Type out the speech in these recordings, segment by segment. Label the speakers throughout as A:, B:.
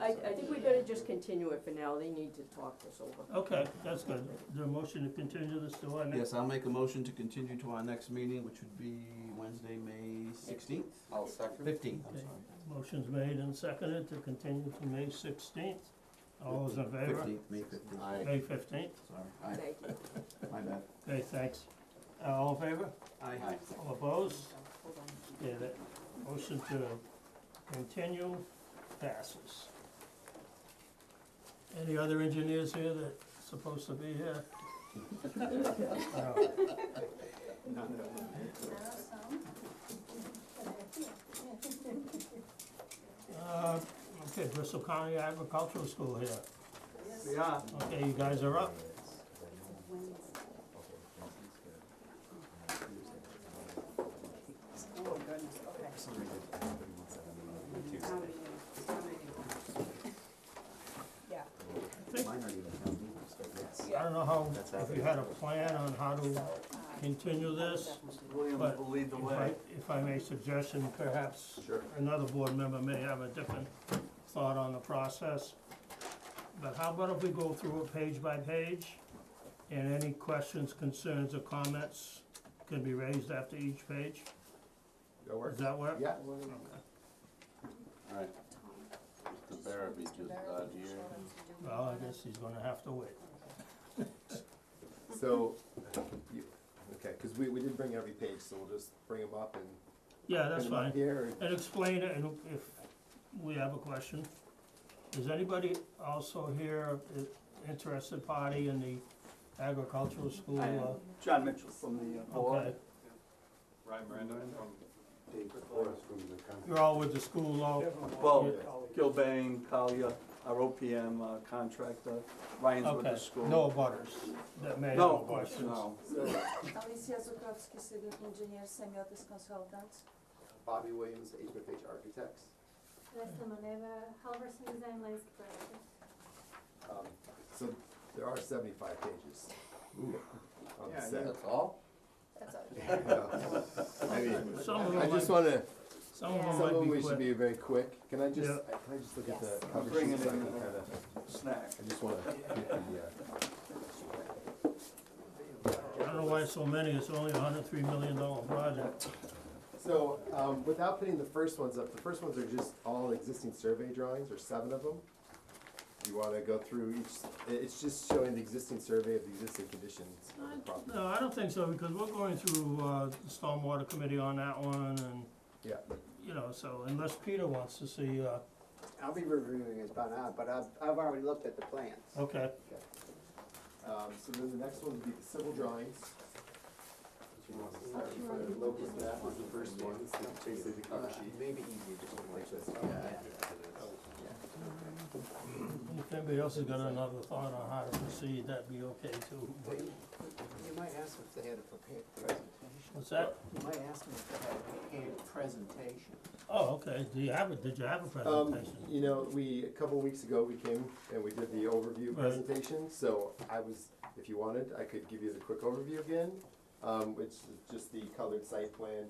A: I, I think we better just continue it for now, they need to talk this over.
B: Okay, that's good. Is there a motion to continue this to our next?
C: Yes, I'll make a motion to continue to our next meeting, which would be Wednesday, May sixteenth,
D: I'll second.
C: fifteenth, I'm
B: Okay.
C: sorry.
B: Motion's made and seconded to continue to May sixteenth. All those in favor?
C: Fifteenth, May fifteenth,
D: Aye.
B: May fifteenth.
C: sorry, aye,
A: Thank you.
C: my bad.
B: Okay, thanks. Uh, All in favor?
D: Aye.
B: All opposed? Yeah, that motion to continue passes. Any other engineers here that supposed to be here? No. Uh, Okay, Bristol County Agricultural School here.
C: We are.
B: Okay, you guys are up.
E: Oh, goodness, okay. How many, how many? Yeah.
B: I don't know how, if you had a plan on how to continue this, but if I, if I may suggestion, perhaps
D: Sure.
B: another board member may have a different thought on the process. But how about if we go through it page by page, and any questions, concerns, or comments can be raised after each page?
D: That
B: Does that work?
D: Yeah.
B: Okay.
D: Alright. Mr. Barrowby just got here.
B: Well, I guess he's gonna have to wait.
F: So, you, okay, because we, we did bring every page, so we'll just bring them up and.
B: Yeah, that's
F: bring 'em up
B: fine.
F: Here, and-
B: and explain it, and if we have a question. Is anybody also here, i- interested party in the agricultural school?
G: I am.
B: uh,
G: John Mitchell from the uh,
B: Okay,
G: board. Ryan Miranda
F: Um,
G: from
B: you're all with the school, though?
G: Well, Gilbane, Collier, our OPM uh, contractor, Ryan's with
B: Okay,
G: the school.
B: no butters that may
G: No,
B: have questions.
G: no.
E: Alicia Zukowski, civil engineer, semiotics consultant.
D: Bobby Williams, H H Architects.
H: Leslie Maneva, Halverson Design Landscape Architect.
F: um, so there are seventy-five pages. On the
G: Yeah,
F: set.
D: That's all?
E: That's all.
F: I mean,
B: Some of
F: I
B: them
F: just
B: might, some of
F: wanna,
E: Yeah.
B: them
F: some of
B: might
F: we
B: be
F: should
B: quick.
F: be very quick. Can I just,
B: Yeah.
F: I- can I just look at
E: Yes.
F: the cover
G: Bring
F: sheet
G: it
F: so I
G: in.
F: can kinda,
G: Snack.
F: I just wanna get the, uh,
B: I don't know why so many, it's only a hundred three million dollar project.
F: So, um, without putting the first ones up, the first ones are just all existing survey drawings, or seven of them. You wanna go through each, it- it's just showing the existing survey of the existing conditions of the property.
B: No, I don't think so, because we're going through, uh, the stormwater committee on that one, and,
F: Yeah,
B: you know, so unless Peter wants to see, uh,
I: I'll be reviewing this by now, but I've, I've already looked at the plans.
B: okay.
F: um, so then the next one would be the civil drawings.
D: Local map was the first one. Basically the cover sheet. Maybe easier just to like this.
B: If anybody else has got another thought on how to proceed, that'd be okay too.
I: They- You might ask if they had a prepared presentation.
B: What's that?
I: You might ask them if they had a prepared presentation.
B: Oh, okay, do you have a, did you have a
F: Um,
B: presentation?
F: you know, we, a couple weeks ago, we came and we did the overview
B: Right.
F: presentation, so I was, if you wanted, I could give you the quick overview again. Um, which is just the colored site plan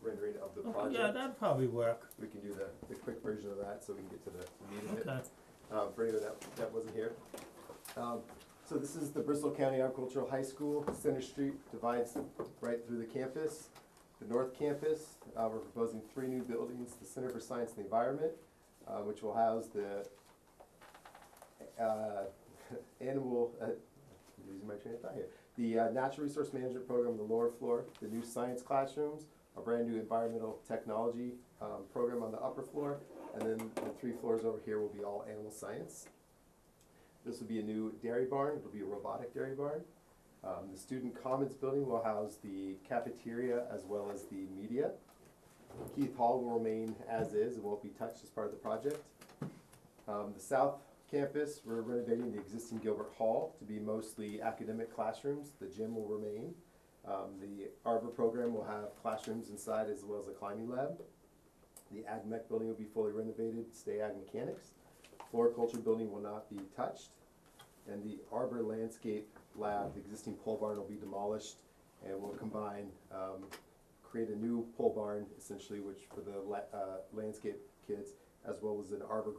F: rendering of the
B: Okay,
F: project.
B: Yeah, that'd probably work,
F: We can do the, the quick version of that, so we can get to the meat of it.
B: okay.
F: Uh, for anyone that, that wasn't here. Um, so this is the Bristol County Agricultural High School, Center Street divides right through the campus. The North Campus, uh, we're proposing three new buildings, the Center for Science and the Environment, uh, which will house the, uh, animal, uh, I'm losing my train of thought here. The, uh, Natural Resource Management Program, on the lower floor, the new science classrooms, a brand-new environmental technology, um, program on the upper floor, and then the three floors over here will be all animal science. This will be a new dairy barn, it'll be a robotic dairy barn. Um, the student commons building will house the cafeteria as well as the media. Keith Hall will remain as is, it won't be touched as part of the project. Um, the south campus, we're renovating the existing Gilbert Hall to be mostly academic classrooms, the gym will remain. Um, the Arbor program will have classrooms inside as well as a climbing lab. The Ag Mech building will be fully renovated, stay Ag Mechanics. Floriculture building will not be touched. And the Arbor Landscape Lab, the existing pole barn will be demolished and will combine, um, create a new pole barn essentially, which for the la- uh, landscape kids, as well as an arbor